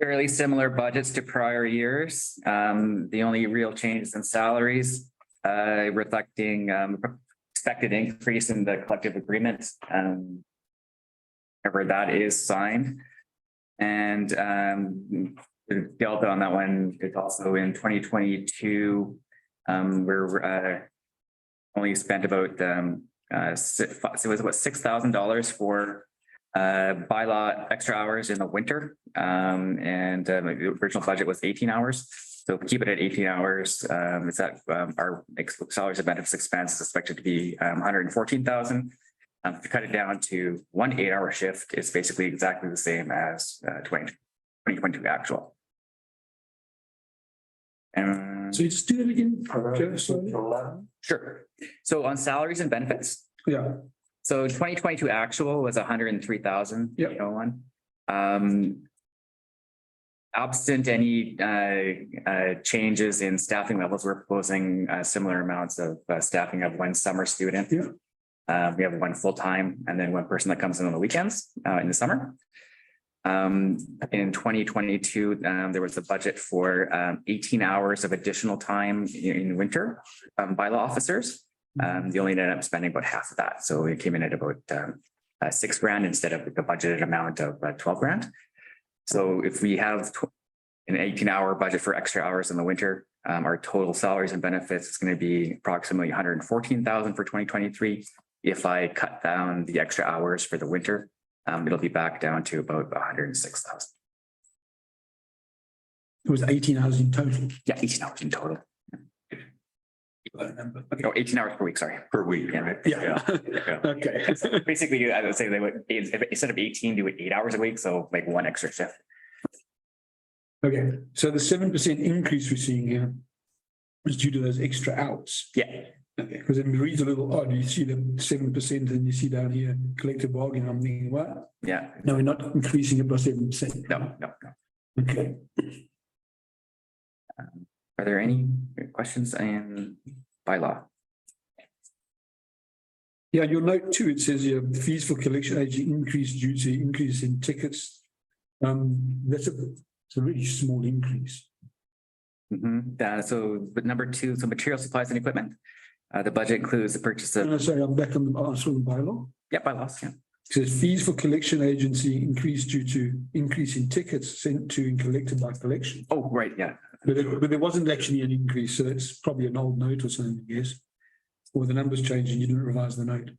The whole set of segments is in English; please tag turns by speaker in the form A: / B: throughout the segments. A: fairly similar budgets to prior years. Um, the only real changes in salaries, uh, reflecting, um, expected increase in the collective agreement, um, whenever that is signed. And, um, the delta on that one is also in twenty twenty-two. Um, we're, uh, only spent about, um, uh, si- fi- so it was what, six thousand dollars for uh, bylaw extra hours in the winter. Um, and uh, the original budget was eighteen hours. So if we keep it at eighteen hours. Um, is that, um, our ex- salaries and benefits expense is expected to be, um, hundred and fourteen thousand. Um, if you cut it down to one eight-hour shift, it's basically exactly the same as, uh, 20 2022 actual. And.
B: So you just do it again. Just-
A: Sure. So on salaries and benefits,
B: Yeah,
A: so twenty twenty-two actual was hundred and three thousand.
B: Yep.
A: Um. Absent any uh uh changes in staffing levels, we're proposing uh similar amounts of uh, staffing of one summer student.
B: Yeah.
A: Uh, we have one full-time and then one person that comes in on the weekends uh in the summer. Um, in twenty twenty-two, um, there was a budget for um eighteen hours of additional time in in winter um by law officers. Um, they only ended up spending about half of that, so it came in at about um uh six grand instead of the budgeted amount of uh, twelve grand. So if we have tw- an eighteen hour budget for extra hours in the winter, um, our total salaries and benefits is gonna be approximately hundred and fourteen thousand for twenty twenty-three. If I cut down the extra hours for the winter, um, it'll be back down to about hundred and six thousand.
B: it was eighteen hours in total.
A: Yeah, eighteen hours in total,
B: I remember. Okay.
A: or eighteen hours per week, sorry.
C: per week,
A: Yeah.
C: right?
B: Yeah. Okay.
A: Basically, I would say they would, instead of eighteen, do it eight hours a week, so like one extra shift.
B: Okay, so the seven percent increase we're seeing here is due to those extra outs.
A: Yeah,
B: Okay. Because it reads a little odd. You see the seven percent and you see down here collective bargaining. I'm thinking, what?
A: yeah,
B: No, we're not increasing it by seven percent.
A: no, no, no.
B: Okay.
A: Are there any questions in bylaw?
B: Yeah, you'll note too, it says here fees for collection agent increased due to increase in tickets. Um, that's a, it's a really small increase.
A: Mhm, that- so, but number two, so material supplies and equipment. Uh, the budget includes the purchase of,
B: No, sorry, I'm back on the, on the bylaw.
A: yeah, bylaws, yeah.
B: It Says fees for collection agency increased due to increase in tickets sent to and collected by collection.
A: Oh, right, yeah,
B: But it, but there wasn't actually an increase, so that's probably an old note or something, I guess. Or the numbers changed and you didn't revise the note.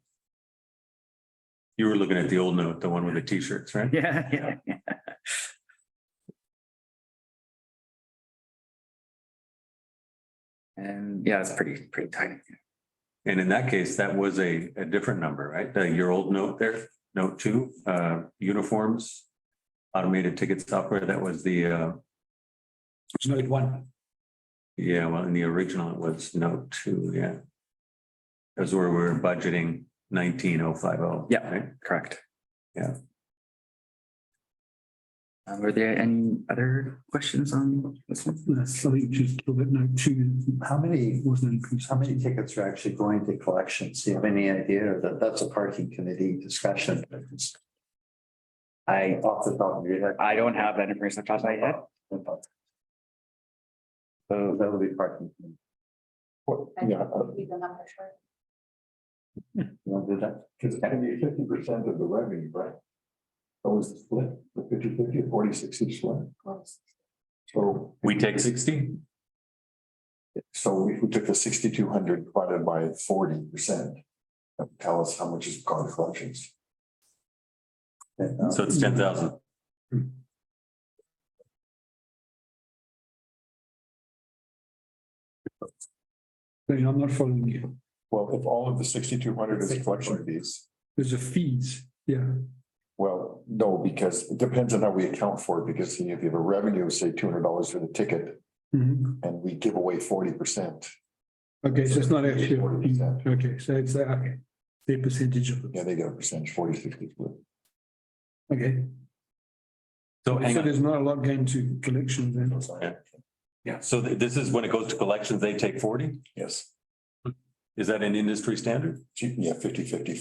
C: You were looking at the old note, the one with the T-shirts, right?
A: yeah, yeah, yeah. And yeah, it's pretty, pretty tiny.
C: And in that case, that was a, a different number, right? The- Your old note there, note two, uh, uniforms, automated ticket software, that was the, uh,
B: It's note one.
C: yeah, well, in the original, it was note two, yeah. That's where we we're budgeting nineteen oh five oh.
A: Yeah. Correct.
C: Yeah.
A: Um, were there any other questions on this one?
B: That's something just a little bit note two.
D: How many,
B: It wasn't an increase.
D: how many tickets are actually going to collections? Do you have any idea that that's a parking committee discussion?
A: I,
D: Off the top of your head.
A: I don't have that information off the top of my head.
D: So that'll be parking. Yeah. You want to do that?
E: Because can be fifty percent of the revenue, right? That was the split, the 50-50, or 40-60 split. So,
C: We take sixty?
E: so if we took the sixty-two hundred divided by forty percent, that would tell us how much is gone to collections. And, uh,
C: So it's ten thousand.
B: Sorry, I'm not following you.
E: Well, if all of the sixty-two hundred is collection fees,
B: There's a fees, yeah.
E: well, no, because it depends on how we account for it, because if you have a revenue, of, say, two hundred dollars for the ticket,
B: Mhm.
E: and we give away forty percent,
B: Okay, so it's not actually,
E: Percent.
B: okay, so it's, uh, okay, the percentage of,
E: yeah, they get a percentage, 40 60 split.
B: okay.
C: So hang
B: So
C: on,
B: there's not a lot going to collections then.
C: so th- this is when it goes to collections, they take forty?
E: Yes,
C: Is that an industry standard?
E: yeah, 50-50.